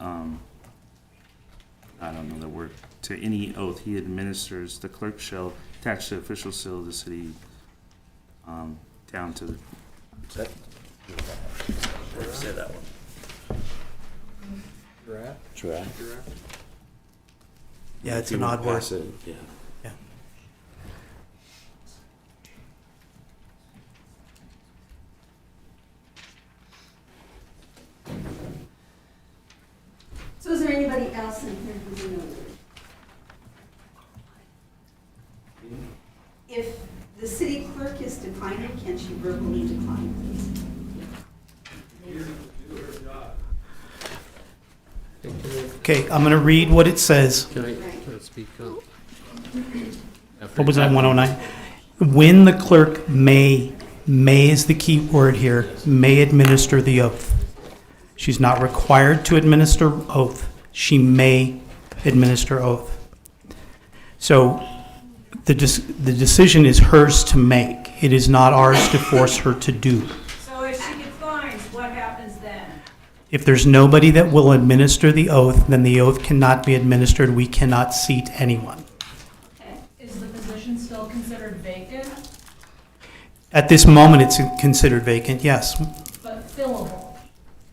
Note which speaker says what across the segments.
Speaker 1: um, I don't know the word, to any oath he administers, the clerk shall attach the official seal of the city, um, down to the
Speaker 2: That- Say that one.
Speaker 3: Giraffe,
Speaker 2: Giraffe.
Speaker 3: giraffe.
Speaker 4: Yeah, it's
Speaker 2: You
Speaker 4: an
Speaker 2: wanna
Speaker 4: odd word.
Speaker 2: pass it, Yeah.
Speaker 4: Yeah.
Speaker 5: So is there anybody else in here who's a notary? If the city clerk is declining, can she verbally decline, please?
Speaker 4: Okay, I'm going to read what it says.
Speaker 6: Can I, can I speak up?
Speaker 4: What was that, 109? When the clerk may, may is the key word here, may administer the oath. She's not required to administer oath. She may administer oath. So the, dec- the decision is hers to make. It is not ours to force her to do.
Speaker 7: So if she declines, what happens then?
Speaker 4: If there's nobody that will administer the oath, then the oath cannot be administered. We cannot seat anyone.
Speaker 7: Is the position still considered vacant
Speaker 4: At this moment, it's considered vacant, yes.
Speaker 7: but fillable?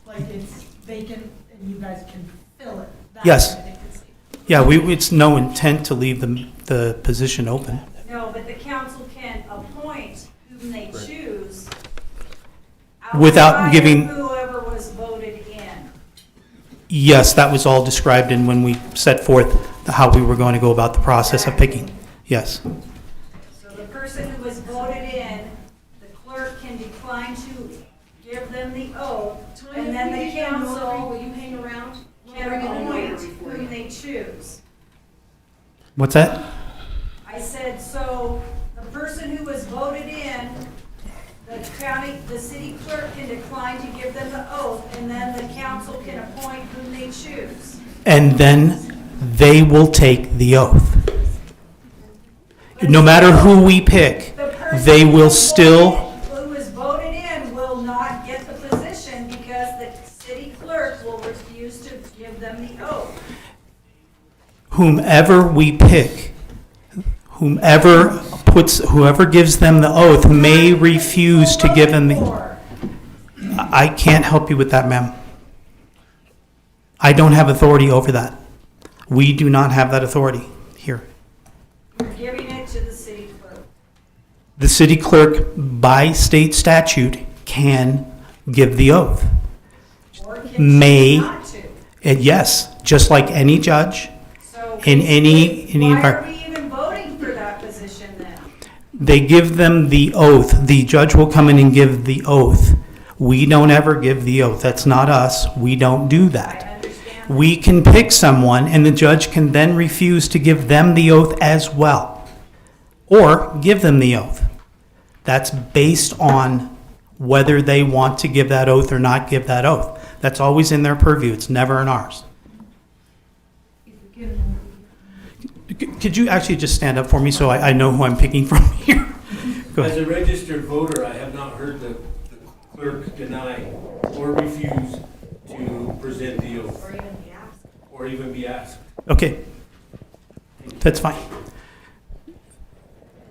Speaker 7: Like it's vacant and you guys can fill it? That's
Speaker 4: Yes.
Speaker 7: a vacancy.
Speaker 4: Yeah, we, it's no intent to leave the, the position open.
Speaker 7: No, but the council can appoint whom they choose.
Speaker 4: Without
Speaker 7: outside of
Speaker 4: giving-
Speaker 7: Whoever was voted in.
Speaker 4: Yes, that was all described in when we set forth how we were going to go about the process of picking. Yes,
Speaker 7: So the person who was voted in, the clerk can decline to give them the oath, and then the council
Speaker 5: Will you hang around?
Speaker 7: can appoint whom they choose.
Speaker 4: what's that?
Speaker 7: I said, so the person who was voted in, the county, the city clerk can decline to give them the oath, and then the council can appoint whom they choose.
Speaker 4: And then they will take the oath. No matter who we pick,
Speaker 7: The person
Speaker 4: They will
Speaker 7: who was
Speaker 4: still-
Speaker 7: voted- Who was voted in will not get the position because the city clerk will refuse to give them the oath.
Speaker 4: whomever we pick, whomever puts, whoever gives them the oath may refuse to give them the,
Speaker 7: Or-
Speaker 4: I can't help you with that, ma'am. I don't have authority over that. We do not have that authority here.
Speaker 7: You're giving it to the city clerk.
Speaker 4: The city clerk, by state statute, can give the oath.
Speaker 7: Or can
Speaker 4: May-
Speaker 7: choose not to.
Speaker 4: And yes, just like any judge,
Speaker 7: So
Speaker 4: in any, any
Speaker 7: Why are
Speaker 4: environment,
Speaker 7: we even voting for that position then?
Speaker 4: they give them the oath. The judge will come in and give the oath. We don't ever give the oath. That's not us. We don't do
Speaker 7: I
Speaker 4: that.
Speaker 7: understand.
Speaker 4: We can pick someone, and the judge can then refuse to give them the oath as well, or give them the oath. That's based on whether they want to give that oath or not give that oath. That's always in their purview, it's never in ours. C- Could you actually just stand up for me so I, I know who I'm picking from here? Go
Speaker 8: As
Speaker 4: ahead.
Speaker 8: a registered voter, I have not heard the the clerk deny or refuse to present the oath
Speaker 5: Or even the app?
Speaker 8: or even be asked.
Speaker 4: Okay, that's fine.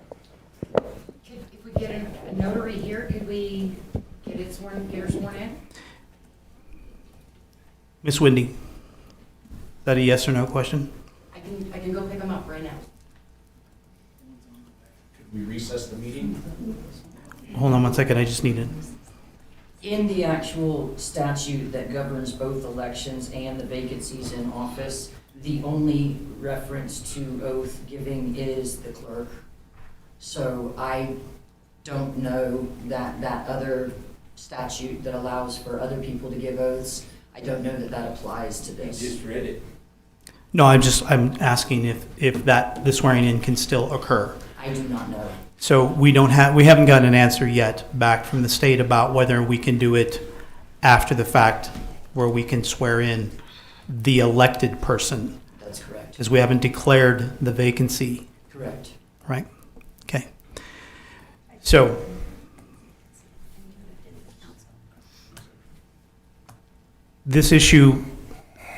Speaker 9: Could- If we get a a notary here, could we get it sworn, get her sworn in?
Speaker 4: Miss Wendy, is that a yes or no question?
Speaker 9: I can, I can go pick them up right now.
Speaker 2: Could we recess the meeting?
Speaker 4: Hold on one second, I just need it.
Speaker 10: In the actual statute that governs both elections and the vacancies in office, the only reference to oath giving is the clerk. So I don't know that that other statute that allows for other people to give oaths, I don't know that that applies to
Speaker 8: I
Speaker 10: this.
Speaker 8: just read it.
Speaker 4: No, I'm just, I'm asking if, if that, the swearing in can still occur.
Speaker 10: I do not know.
Speaker 4: So we don't have, we haven't gotten an answer yet back from the state about whether we can do it after the fact where we can swear in the elected person,
Speaker 10: That's correct.
Speaker 4: because we haven't declared the vacancy,
Speaker 10: Correct.
Speaker 4: right? Okay. So, this issue